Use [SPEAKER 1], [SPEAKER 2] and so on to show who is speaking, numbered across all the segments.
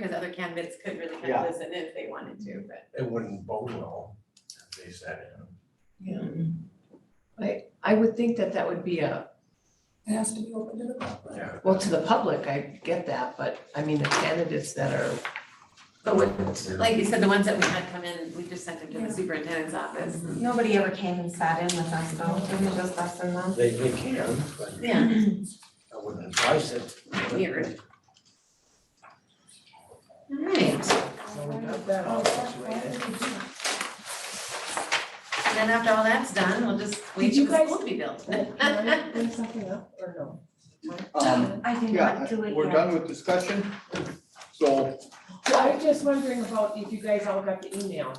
[SPEAKER 1] because other candidates could really kind
[SPEAKER 2] Yeah.
[SPEAKER 1] of listen if they wanted to, but.
[SPEAKER 3] It wouldn't bode well if they sat in.
[SPEAKER 4] Yeah. I, I would think that that would be a,
[SPEAKER 5] It has to be open to the public.
[SPEAKER 3] Yeah.
[SPEAKER 4] well, to the public, I get that, but I mean, the candidates that are,
[SPEAKER 1] But what, like you said, the ones that we had come in, we just sent them to
[SPEAKER 5] Yeah.
[SPEAKER 1] the superintendent's office.
[SPEAKER 4] Mm-hmm.
[SPEAKER 6] Nobody ever came and sat in with us though, it was just us and them.
[SPEAKER 3] They, they can, but
[SPEAKER 1] Yeah,
[SPEAKER 3] I wouldn't advise it.
[SPEAKER 1] weird. All right,
[SPEAKER 4] so we got that all situated.
[SPEAKER 1] and then after all that's done, we'll just wait
[SPEAKER 4] Did you
[SPEAKER 1] for the
[SPEAKER 4] guys-
[SPEAKER 1] school to be built.
[SPEAKER 4] Bring something up or no?
[SPEAKER 2] Um,
[SPEAKER 6] I did
[SPEAKER 2] yeah,
[SPEAKER 6] not do it
[SPEAKER 2] we're
[SPEAKER 6] yet.
[SPEAKER 2] done with discussion. So,
[SPEAKER 4] Well, I was just wondering about if you guys all got the email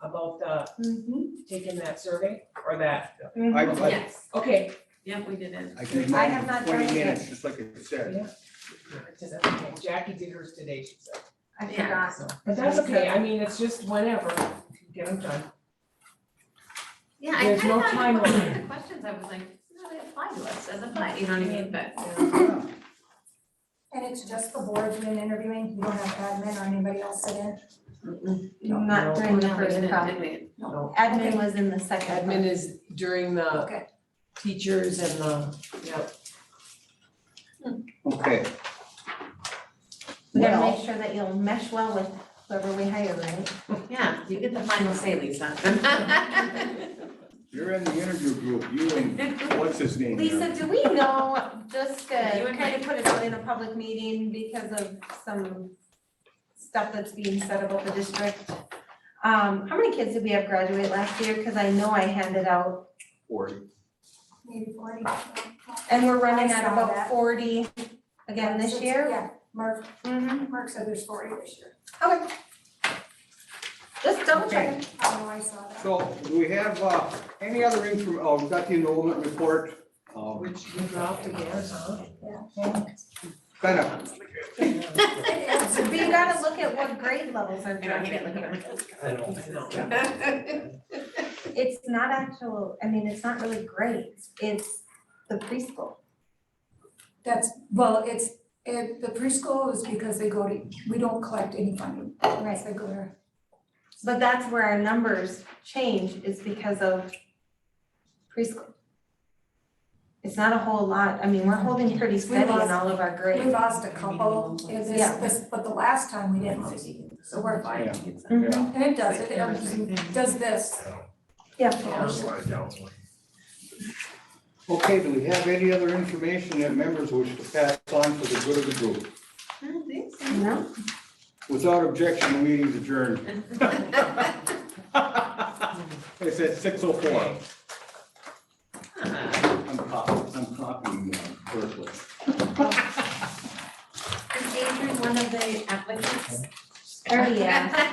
[SPEAKER 4] about uh
[SPEAKER 6] Mhm.
[SPEAKER 4] taking that survey or that,
[SPEAKER 2] I, I,
[SPEAKER 1] Yes,
[SPEAKER 4] okay.
[SPEAKER 1] yeah, we did it.
[SPEAKER 2] I can
[SPEAKER 6] I have
[SPEAKER 2] imagine
[SPEAKER 6] not
[SPEAKER 2] twenty
[SPEAKER 6] done it yet.
[SPEAKER 2] minutes, just like I said.
[SPEAKER 4] Jackie did hers today, she said.
[SPEAKER 6] I
[SPEAKER 1] Yeah.
[SPEAKER 6] forgot.
[SPEAKER 4] So, But that's okay, I mean, it's just whenever, get them done.
[SPEAKER 1] Yeah, I
[SPEAKER 4] There's
[SPEAKER 1] kind of
[SPEAKER 4] no
[SPEAKER 1] thought, about
[SPEAKER 4] timeline.
[SPEAKER 1] one of the questions, I was like, no, they apply to us as a play, you know what I mean, but.
[SPEAKER 5] And it's just the board doing interviewing, you don't have admin or anybody else sit in?
[SPEAKER 4] Mm-hmm.
[SPEAKER 6] Not during the
[SPEAKER 1] No, we
[SPEAKER 6] first
[SPEAKER 1] didn't,
[SPEAKER 6] prompt.
[SPEAKER 1] did we?
[SPEAKER 6] Admin was in the second.
[SPEAKER 4] Admin is during the
[SPEAKER 5] Okay.
[SPEAKER 4] teachers and the, yep.
[SPEAKER 2] Okay.
[SPEAKER 6] We gotta
[SPEAKER 2] Well-
[SPEAKER 6] make sure that you'll mesh well with whoever we hire, right?
[SPEAKER 1] Yeah, you get the final say, Lisa.
[SPEAKER 2] You're in the interview group, you and, what's his name?
[SPEAKER 6] Lisa, do we know, just to
[SPEAKER 1] You and
[SPEAKER 6] kind of put it out in a public meeting because of some stuff that's being said about the district? Um, how many kids did we have graduate last year? Cause I know I handed out,
[SPEAKER 2] Forty.
[SPEAKER 5] Maybe forty.
[SPEAKER 6] and we're running at
[SPEAKER 5] I saw
[SPEAKER 6] about
[SPEAKER 5] that.
[SPEAKER 6] forty again this year.
[SPEAKER 5] Yeah, Mark,
[SPEAKER 6] Mm-hmm.
[SPEAKER 5] Mark said there's forty this year.
[SPEAKER 6] Okay. Just double check.
[SPEAKER 5] I know I saw that.
[SPEAKER 2] So, do we have, uh, any other info, oh, we've got the enrollment report, uh,
[SPEAKER 4] Which you dropped again, huh?
[SPEAKER 2] kind of,
[SPEAKER 6] But you gotta look at what grade levels are
[SPEAKER 1] I don't
[SPEAKER 6] dropping
[SPEAKER 1] hate it, look at
[SPEAKER 6] here.
[SPEAKER 3] I don't.
[SPEAKER 6] It's not actual, I mean, it's not really grades, it's the preschool.
[SPEAKER 5] That's, well, it's, it, the preschool is because they go to, we don't collect any funding.
[SPEAKER 6] Right.
[SPEAKER 5] They go to,
[SPEAKER 6] But that's where our numbers change is because of preschool. It's not a whole lot, I mean, we're holding pretty steady in all of our
[SPEAKER 5] we
[SPEAKER 6] grades.
[SPEAKER 5] lost a couple, and this,
[SPEAKER 6] Yeah.
[SPEAKER 5] this, but the last time we didn't lose, so we're fine.
[SPEAKER 6] Mhm.
[SPEAKER 5] And it does, it, it does this.
[SPEAKER 6] Yeah,
[SPEAKER 2] okay, do we have any other information that members wish to pass on for the good of the group?
[SPEAKER 6] no,
[SPEAKER 2] Without objection, the meeting's adjourned. It's at six oh four. I'm copying, I'm copying, uh, Ursula.
[SPEAKER 1] Is Adrian one of the applicants?
[SPEAKER 6] oh yeah.